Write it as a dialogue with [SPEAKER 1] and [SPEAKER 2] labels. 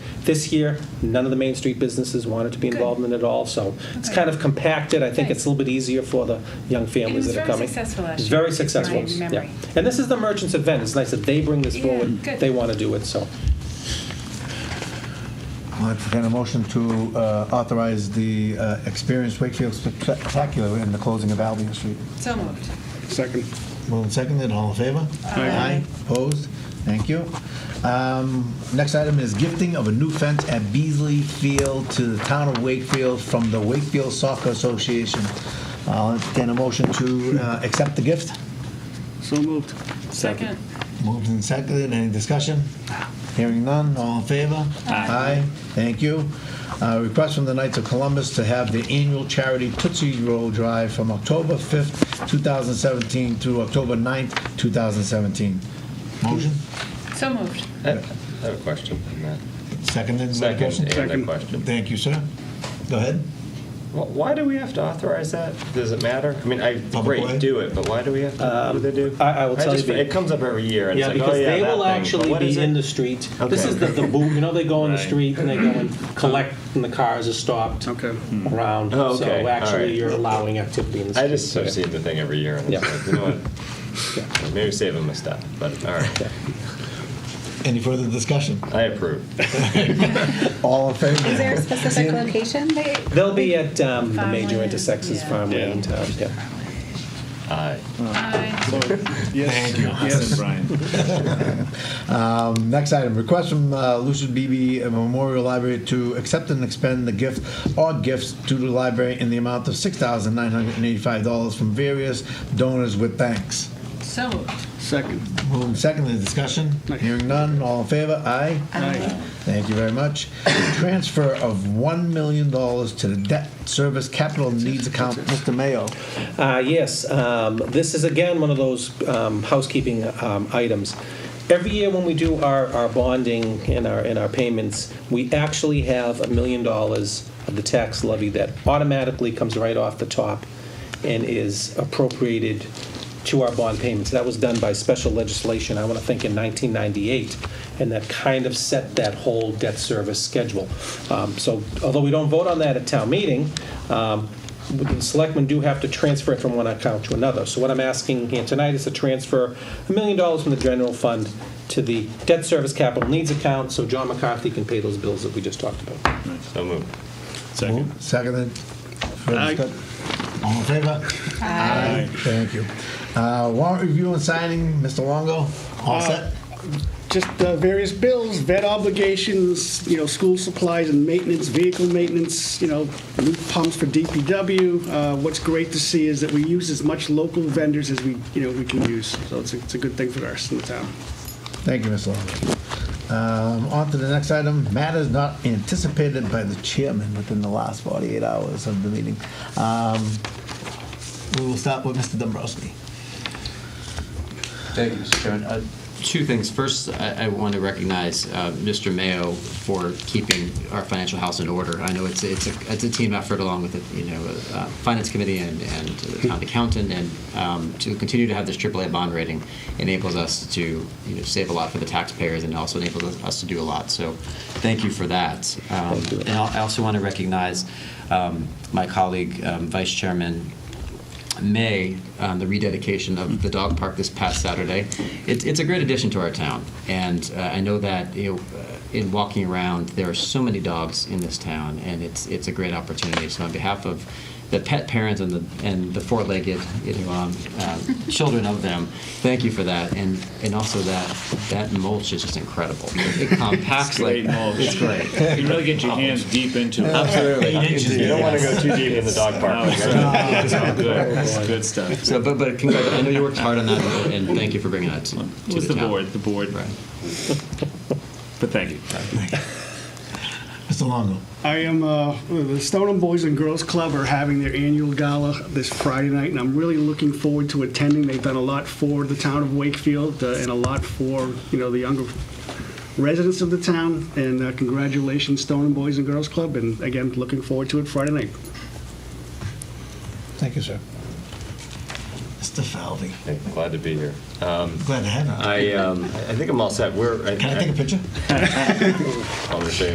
[SPEAKER 1] This year, none of the Main Street businesses wanted to be involved in it at all, so it's
[SPEAKER 2] Okay.
[SPEAKER 1] kind of compacted. I think it's a little bit easier for the young families
[SPEAKER 2] was
[SPEAKER 1] that are
[SPEAKER 2] very
[SPEAKER 1] coming.
[SPEAKER 2] successful last year,
[SPEAKER 1] Very
[SPEAKER 2] my
[SPEAKER 1] successful, yeah.
[SPEAKER 2] memory.
[SPEAKER 1] And this is the merchants' event. It's nice that they bring this
[SPEAKER 2] Yeah,
[SPEAKER 1] forward.
[SPEAKER 2] good.
[SPEAKER 1] They want to do it, so.
[SPEAKER 3] I'll entertain a motion to uh, authorize the uh, Experience Wakefield Spectacular in the closing of Albion Street.
[SPEAKER 2] So moved.
[SPEAKER 4] Second.
[SPEAKER 3] Moved and seconded, all in favor?
[SPEAKER 4] Aye.
[SPEAKER 3] Opposed? Thank you. Um, Next item is gifting of a new fence at Beasley Field to the town of Wakefield from the Wakefield Soccer Association. I'll entertain a motion to uh, accept the gift.
[SPEAKER 4] So moved.
[SPEAKER 2] Second.
[SPEAKER 3] Moved and seconded, any discussion? Hearing none, all in favor? Aye. thank you. Uh, Request from the Knights of Columbus to have the annual charity Tootsie Roll Drive from October 5th, 2017 through October 9th, 2017. Motion,
[SPEAKER 2] So moved.
[SPEAKER 5] I have a question on that.
[SPEAKER 3] seconded? with a motion?
[SPEAKER 5] Second, and a
[SPEAKER 4] Second.
[SPEAKER 5] question.
[SPEAKER 3] Thank you, sir. Go ahead.
[SPEAKER 5] Wh- Why do we have to authorize that? Does it matter? I mean, I,
[SPEAKER 3] way?
[SPEAKER 5] great, do it, but why do we have to, what do they do?
[SPEAKER 1] Um, I- I will tell
[SPEAKER 5] just-
[SPEAKER 1] you the-
[SPEAKER 5] It comes up every year, and it's
[SPEAKER 1] Yeah,
[SPEAKER 5] like, oh,
[SPEAKER 1] because
[SPEAKER 5] yeah,
[SPEAKER 1] they
[SPEAKER 5] that
[SPEAKER 1] will
[SPEAKER 5] thing, but
[SPEAKER 1] actually
[SPEAKER 5] what is
[SPEAKER 1] be
[SPEAKER 5] it?
[SPEAKER 1] in the street. This
[SPEAKER 5] Okay.
[SPEAKER 1] is the, the boom, you know, they go in the
[SPEAKER 5] Right.
[SPEAKER 1] street and they go and collect and the cars are stopped
[SPEAKER 4] Okay.
[SPEAKER 1] around.
[SPEAKER 5] Oh,
[SPEAKER 1] So
[SPEAKER 5] okay. All
[SPEAKER 1] actually,
[SPEAKER 5] right.
[SPEAKER 1] you're allowing activity in the street.
[SPEAKER 5] I just have seen the thing every year, and it's
[SPEAKER 1] Yeah.
[SPEAKER 5] like, you know what? Maybe save them a step, but all right,
[SPEAKER 3] Any further discussion?
[SPEAKER 5] I approve.
[SPEAKER 3] All in favor?
[SPEAKER 6] Is there a specific location? They,
[SPEAKER 1] They'll be at um, the major
[SPEAKER 2] Farmland,
[SPEAKER 1] intersections,
[SPEAKER 2] yeah.
[SPEAKER 1] farmland in town, yeah.
[SPEAKER 5] Aye.
[SPEAKER 2] Aye.
[SPEAKER 4] Yes. Thank you. Yes.
[SPEAKER 3] Um, Next item, request from uh, Lucian Beebe Memorial Library to accept and expend the gift or gifts to the library in the amount of $6,985 from various donors with thanks.
[SPEAKER 2] So moved.
[SPEAKER 4] Second.
[SPEAKER 3] Moving second the discussion. Hearing none, all in favor? Aye.
[SPEAKER 4] Aye.
[SPEAKER 3] Thank you very much. Transfer of $1 million to the debt service capital needs account. Mr. Mayo.
[SPEAKER 1] Uh, Yes, um, this is again one of those um, housekeeping um, items. Every year when we do our our bonding and our, and our payments, we actually have a million dollars of the tax levy that automatically comes right off the top and is appropriated to our bond payments. That was done by special legislation, I want to think in 1998, and that kind of set that whole debt service schedule. Um, So although we don't vote on that at town meeting, um, the selectmen do have to transfer it from one account to another. So what I'm asking here tonight is to transfer a million dollars from the general fund to the debt service capital needs account, so John McCarthy can pay those bills that we just talked about.
[SPEAKER 5] So moved.
[SPEAKER 3] Second. Seconded. Further
[SPEAKER 4] Aye.
[SPEAKER 3] discuss- All in favor? Aye. Thank you. Uh, Warrant review and signing, Mr. Longo, all set?
[SPEAKER 4] Just uh, various bills, vet obligations, you know, school supplies and maintenance, vehicle maintenance, you know, new pumps for DPW. Uh, What's great to see is that we use as much local vendors as we, you know, we can use. So it's a, it's a good thing for us in the town.
[SPEAKER 3] Thank you, Mr. Longo. Um, On to the next item, matters not anticipated by the chairman within the last 48 hours of the meeting. Um, We will start with Mr. Dombrowski.
[SPEAKER 7] Thank you, Mr. Chairman. Uh, Two things. First, I, I want to recognize uh, Mr. Mayo for keeping our financial house in order. I know it's it's a, it's a team effort along with the you know uh, finance committee and and the town accountant, and um, to continue to have this AAA bond rating enables us to you know save a lot for the taxpayers and also enables us, us to do a lot. So, thank you for that. Um, and I'll- I also want to recognize um, my colleague, um, Vice Chairman May, um, the rededication of the dog park this past Saturday. It's, it's a great addition to our town, and uh, I know that you know, uh, in walking around, there are so many dogs in this town, and it's it's a great opportunity. So, on behalf of the pet parents and the and the four-legged you know, um, uh, children of them, thank you for that, and and also that that mulch is just incredible. It compacts like
[SPEAKER 8] great mulch.
[SPEAKER 7] it's great.
[SPEAKER 8] You really get your hands deep into it.
[SPEAKER 7] Absolutely.
[SPEAKER 5] You don't want to go too deep in the dog
[SPEAKER 8] Oh,
[SPEAKER 5] park.
[SPEAKER 8] it's good. It's all good. It's good stuff.
[SPEAKER 7] So, but but congrat- I know you worked hard on that, and and thank you for bringing that to, to
[SPEAKER 8] It was the
[SPEAKER 7] town.
[SPEAKER 8] board, the board.
[SPEAKER 7] Right.
[SPEAKER 8] But thank you.
[SPEAKER 3] Mr. Longo.
[SPEAKER 4] I am, uh, the Stoneham Boys and Girls Club are having their annual gala this Friday night, and I'm really looking forward to attending. They've done a lot for the town of Wakefield uh, and a lot for, you know, the younger residents of the town. And uh, congratulations, Stoneham Boys and Girls Club, and again, looking forward to it Friday night.
[SPEAKER 3] Thank you, sir. Mr. Falvey,
[SPEAKER 5] Hey, Glad to be here.
[SPEAKER 3] glad to have you.
[SPEAKER 5] I, um, I think I'm all set. We're.
[SPEAKER 3] Can I take a picture?
[SPEAKER 5] I'm gonna say